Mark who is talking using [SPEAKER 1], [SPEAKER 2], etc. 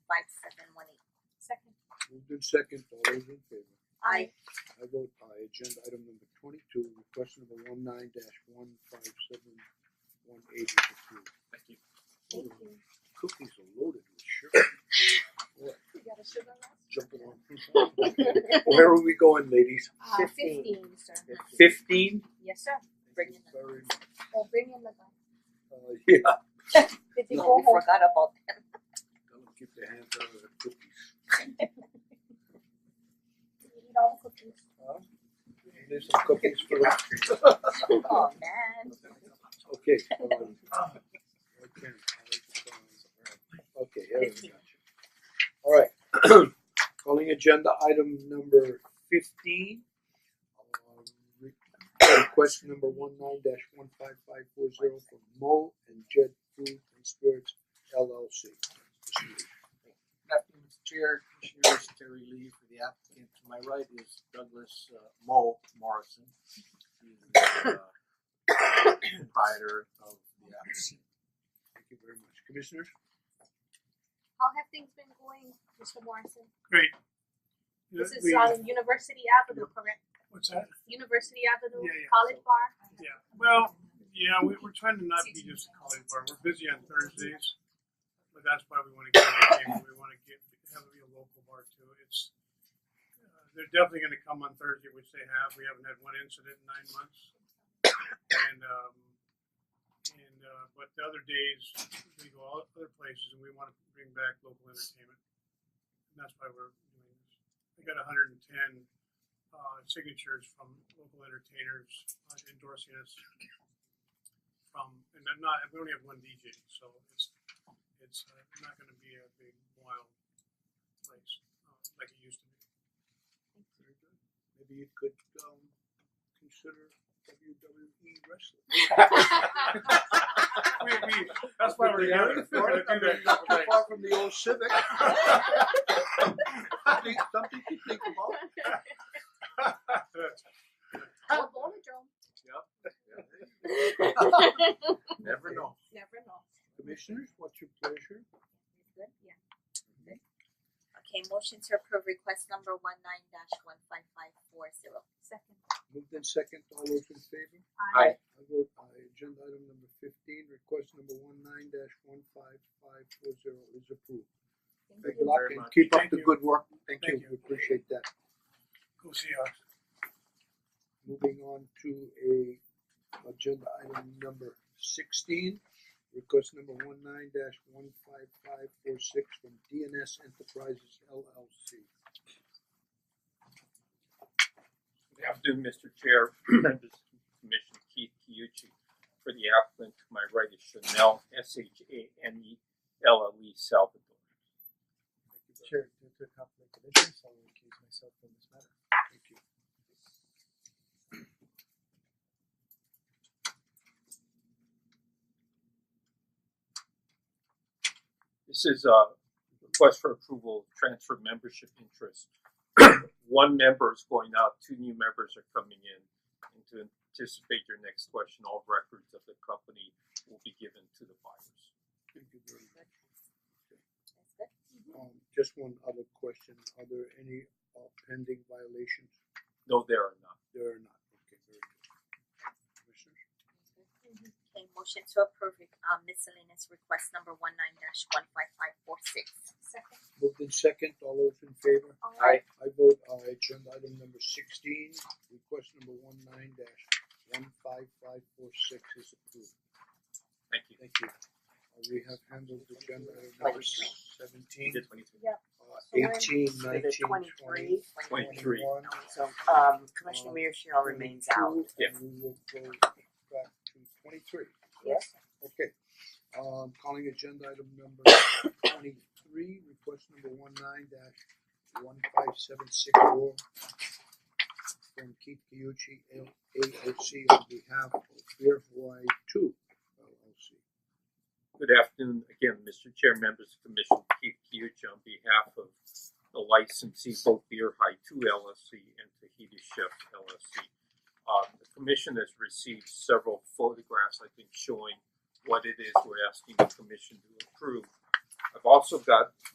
[SPEAKER 1] moved in second, all those in favor?
[SPEAKER 2] I
[SPEAKER 1] I vote aye, agenda item number twenty-two, request number one nine dash one five seven one eight is approved.
[SPEAKER 3] Thank you.
[SPEAKER 2] Thank
[SPEAKER 1] Oh,
[SPEAKER 2] you.
[SPEAKER 1] Cookies are loaded with sugar,
[SPEAKER 2] You got a sugar rush?
[SPEAKER 1] jumping on. Where are we going, ladies?
[SPEAKER 2] Uh fifteen, sir.
[SPEAKER 3] Fifteen,
[SPEAKER 2] Yes, sir.
[SPEAKER 1] Thank you very much.
[SPEAKER 2] Well, bring in the gun.
[SPEAKER 1] Uh, yeah,
[SPEAKER 2] Did they
[SPEAKER 4] No,
[SPEAKER 2] go
[SPEAKER 4] we
[SPEAKER 2] home?
[SPEAKER 4] forgot about that.
[SPEAKER 1] Don't keep the hands out of the cookies.
[SPEAKER 2] Did you eat all the cookies?
[SPEAKER 1] Huh? There's some cookies for the.
[SPEAKER 4] Oh man.
[SPEAKER 1] Okay, um, okay, okay, here we go. Alright, calling agenda item number fifteen. uh, re- Request number one nine dash one five five four zero from Mo and Jed Food and Spirits LLC.
[SPEAKER 5] Good afternoon, Mr. Chair, Commissioners, Terry Lee for the applicant. To my right is Douglas uh, Mo Morrison. He's the uh, proprietor of the applicant.
[SPEAKER 1] Thank you very much, commissioners.
[SPEAKER 2] How have things been going, Mister Morrison?
[SPEAKER 6] Yeah,
[SPEAKER 2] This is
[SPEAKER 6] we-
[SPEAKER 2] on University Avenue, correct?
[SPEAKER 6] What's that?
[SPEAKER 2] University Avenue,
[SPEAKER 6] Yeah, yeah.
[SPEAKER 2] College Bar?
[SPEAKER 6] Yeah, well, yeah, we, we're trying to not be just a college bar. We're busy on Thursdays, but that's why we want to get out of the game. We want to get have it be a local bar too. It's uh, they're definitely going to come on Thursday, which they have. We haven't had one incident in nine months, and um, and uh, but the other days we go all other places, and we want to bring back local entertainment. And that's why we're doing this. We got 110 uh, signatures from local entertainers uh, endorsing us from, and then not, we only have one DJ, so it's, it's uh, not gonna be a big wild place, uh, like it used to be.
[SPEAKER 1] Very good. Maybe you could um consider WWE wrestling.
[SPEAKER 6] We, we, that's why we're here. We're gonna do that.
[SPEAKER 1] Not too far from the old Civic. Something, something to think about.
[SPEAKER 2] Or Bonadrome.
[SPEAKER 5] Never know.
[SPEAKER 2] Never know.
[SPEAKER 1] Commissioners, what's your pleasure?
[SPEAKER 4] Good, yeah. Good. Okay, motion to approve request number one nine dash one five five four zero.
[SPEAKER 2] Second.
[SPEAKER 1] Moved in second, all those in favor?
[SPEAKER 5] Aye.
[SPEAKER 2] I
[SPEAKER 1] I vote aye, agenda item number fifteen, request number one nine dash one five five four zero is approved. Good
[SPEAKER 5] Thank you
[SPEAKER 1] luck
[SPEAKER 5] very
[SPEAKER 1] and
[SPEAKER 5] much.
[SPEAKER 1] Keep up
[SPEAKER 6] Thank
[SPEAKER 1] the
[SPEAKER 6] you.
[SPEAKER 1] good work, thank
[SPEAKER 6] Thank
[SPEAKER 1] you, we appreciate that.
[SPEAKER 6] Go see uh, us.
[SPEAKER 1] Moving on to a agenda item number sixteen, request number one nine dash one five five four six from DNS Enterprises LLC.
[SPEAKER 3] good afternoon, Mister Chair, members of the Commission, Keith Kiuchi. For the applicant, to my right is Chanel, S H A N E L L E Salvador.
[SPEAKER 1] Chair, due to conflict of interest, I will recuse myself from this matter. Thank you.
[SPEAKER 3] This is a request for approval, of transfer membership interest. One member is going out, two new members are coming in. And to anticipate your next question, all records of the company will be given to the buyers.
[SPEAKER 1] Thank you very much.
[SPEAKER 4] That's good.
[SPEAKER 1] Um, just one other question, are there any uh, pending violations?
[SPEAKER 3] No, there are not.
[SPEAKER 1] There are not, okay, very good. Commissioners,
[SPEAKER 4] Okay, motion to approve uh miscellaneous request number one nine dash one five five four six.
[SPEAKER 2] Second.
[SPEAKER 1] moved in second, all those in favor?
[SPEAKER 2] Aye.
[SPEAKER 1] I vote aye, agenda item number sixteen, request number one nine dash one five five four six is approved,
[SPEAKER 3] Thank you.
[SPEAKER 1] thank you. Uh, we have handled agenda item number seventeen,
[SPEAKER 2] Yeah.
[SPEAKER 1] uh, eighteen, nineteen, twenty.
[SPEAKER 7] Twenty-three.
[SPEAKER 3] Twenty-three.
[SPEAKER 1] One,
[SPEAKER 7] So, um, Commissioner Mershel remains out.
[SPEAKER 1] two,
[SPEAKER 3] Yeah.
[SPEAKER 1] And we will go back to twenty-three.
[SPEAKER 7] Yes.
[SPEAKER 1] Okay, um calling agenda item number twenty-three, request number one nine dash one five seven six four from Keith Kiyuchi L A O C on behalf of Beer Hawaii Two LLC.
[SPEAKER 3] Good afternoon again, Mr. Chair, members of the Commission, Keith Kiuchi on behalf of the licensee, both Beer High Two LLC and Tahiti Chef LLC. Uh, the commission has received several photographs, I think, showing what it is we're asking the commission to approve. I've also got